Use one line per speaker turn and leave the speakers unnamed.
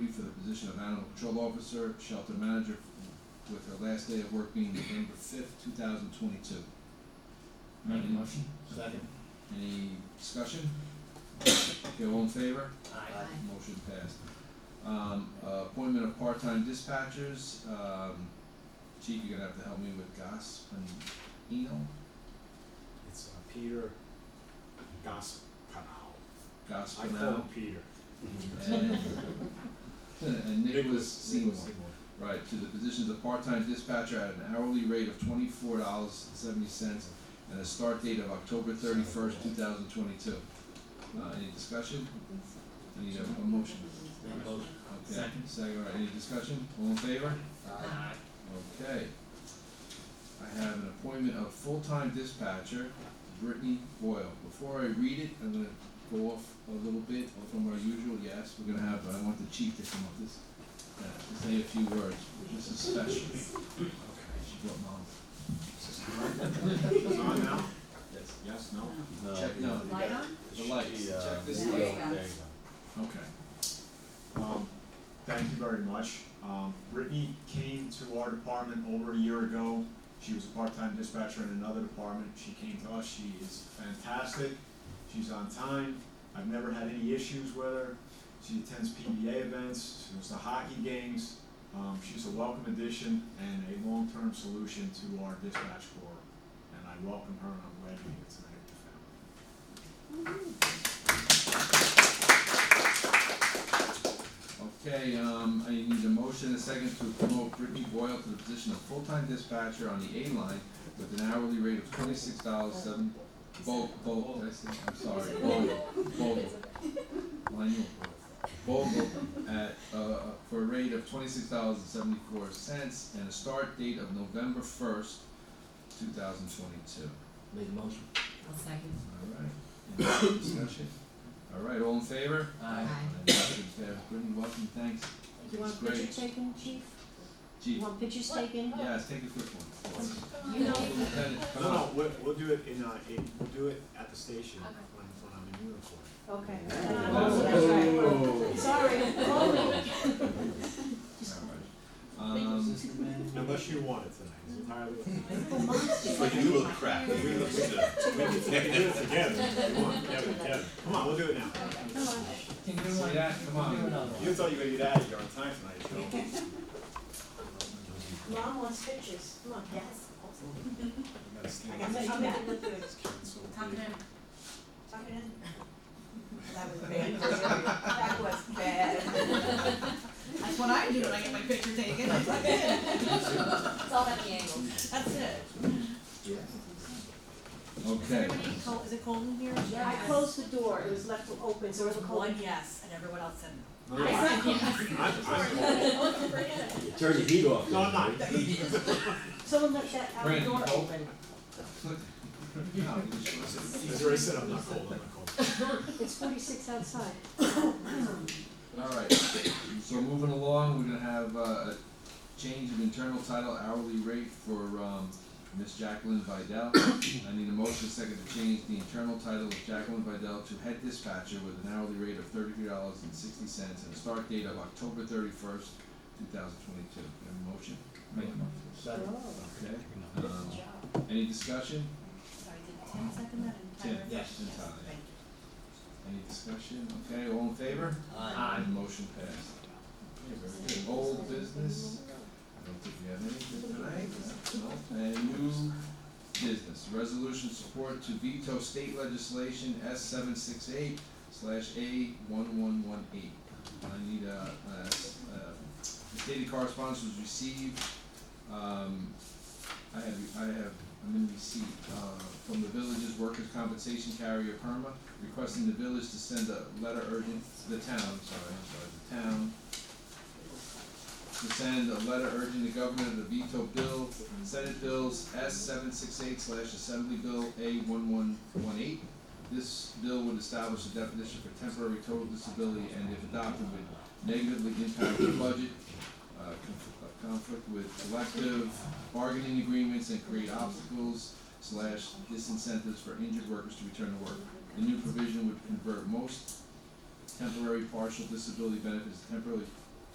position of animal control officer, shelter manager, with her last day of work being November fifth, two thousand twenty-two.
Make a motion?
Second.
Any discussion? Okay, all in favor?
Aye.
Motion passed. Um, uh, appointment of part-time dispatchers, um, chief, you're gonna have to help me with Goss and Eno,
It's uh, Peter Gaspinall.
Goss
I call him
Fennell,
Peter.
and, and Nicholas Seymour.
Nicholas Seymour.
Right, to the positions of part-time dispatcher at an hourly rate of twenty-four dollars seventy cents and a start date of October thirty-first, two thousand twenty-two. Uh, any discussion? Any, uh, a motion?
Make a motion.
Okay,
Second.
second, all right, any discussion? All in favor?
Aye.
Okay. I have an appointment of full-time dispatcher, Brittany Boyle. Before I read it, I'm gonna go off a little bit from our usual, yes, we're gonna have, I want the chief to come up this, uh, to say a few words, this is special.
Okay.
She brought mom.
Is it on now?
Yes.
Yes, no?
Check, no,
Light on?
the lights,
Uh, She, uh,
check this
Yeah.
light.
light.
There you go.
Okay.
Um, thank you very much. Um, Brittany came to our department over a year ago. She was a part-time dispatcher in another department. She came to us. She is fantastic. She's on time. I've never had any issues with her. She attends PBA events. She goes to hockey games. Um, she's a welcome addition and a long-term solution to our dispatch corps. And I welcome her and I'm glad you're here tonight with the family.
Okay, um, I need a motion and a second to promote Brittany Boyle to the position of full-time dispatcher on the A line with an hourly rate of twenty-six dollars seven, Bo, Bo, did I say, I'm sorry, Bo, Bo, Lionel Bo, Bo, at, uh, for a rate of twenty-six dollars and seventy-four cents and a start date of November first, two thousand twenty-two.
Make a motion?
I'll second.
All right, any discussion? All right, all in favor?
Aye.
And motion passed. Brittany, welcome, thanks.
You
It's
want
great.
pictures taken, chief?
Chief.
You want pictures taken?
Yes, take a quick one.
You know,
Lieutenant, come
No,
on.
no, we'll, we'll do it in, uh, in, we'll do it at the station when, when I'm in uniform.
Okay.
Oh.
That's right. Sorry,
Um,
Oh.
Unless you want it tonight, it's entirely up to you.
But you look crap. We look good.
We can do it together if you want, Kevin, Kevin. Come on, we'll do it now.
Come on.
Can you do
see
one?
that, come on.
Do another one.
You thought you were gonna get out of here on time tonight, Joe.
Mom wants pictures, come on.
Yes.
You gotta
I
stand
got
up.
to come in with it.
So
Tuck
big.
it in.
Tuck it in. That was bad, that was bad.
That's what I do when I get my picture taken, That's like it.
It's all about the angle.
that's it.
Okay,
Everybody cold- is it cold in here?
Yeah.
I closed the door, it was left open, so it was a cold.
One yes, and everyone else said no.
No, I- I'm, I'm.
Turn the heat off.
No, I'm not.
Someone left that outer
Brandon,
door
you cold?
open.
No, you just-
He's already said I'm not cold, I'm not cold.
It's forty-six outside.
All right, so moving along, we're gonna have uh, a change of internal title hourly rate for um Miss Jacqueline Vidal. I need a motion second to change the internal title of Jacqueline Vidal to head dispatcher with an hourly rate of thirty-three dollars and sixty cents and a start date of October thirty-first, two thousand twenty-two. Have a motion?
Make a motion.
Okay, um, any discussion?
Sorry, did Tim second that and
Tim,
Tyler?
yes, and Tyler.
thank you.
Any discussion? Okay, all in favor?
Aye.
Motion passed. Okay, very good. Old business, I don't think we have anything tonight, no, and new business, resolution support to veto state legislation S seven six eight slash A one one one eight. I need a, a, a stated correspondence was received, um, I have, I have, I'm in receipt, uh, from the village's workers' compensation carrier Perma, requesting the village to send a letter urgent, the town, sorry, I'm sorry, the town, to send a letter urging the governor to veto bill, Senate bills S seven six eight slash Assembly Bill A one one one eight. This bill would establish a definition for temporary total disability and if adopted would negatively impact the budget, uh, conf- uh, conflict with collective bargaining agreements and create obstacles slash disincentives for injured workers to return to work. The new provision would convert most temporary partial disability benefits to temporary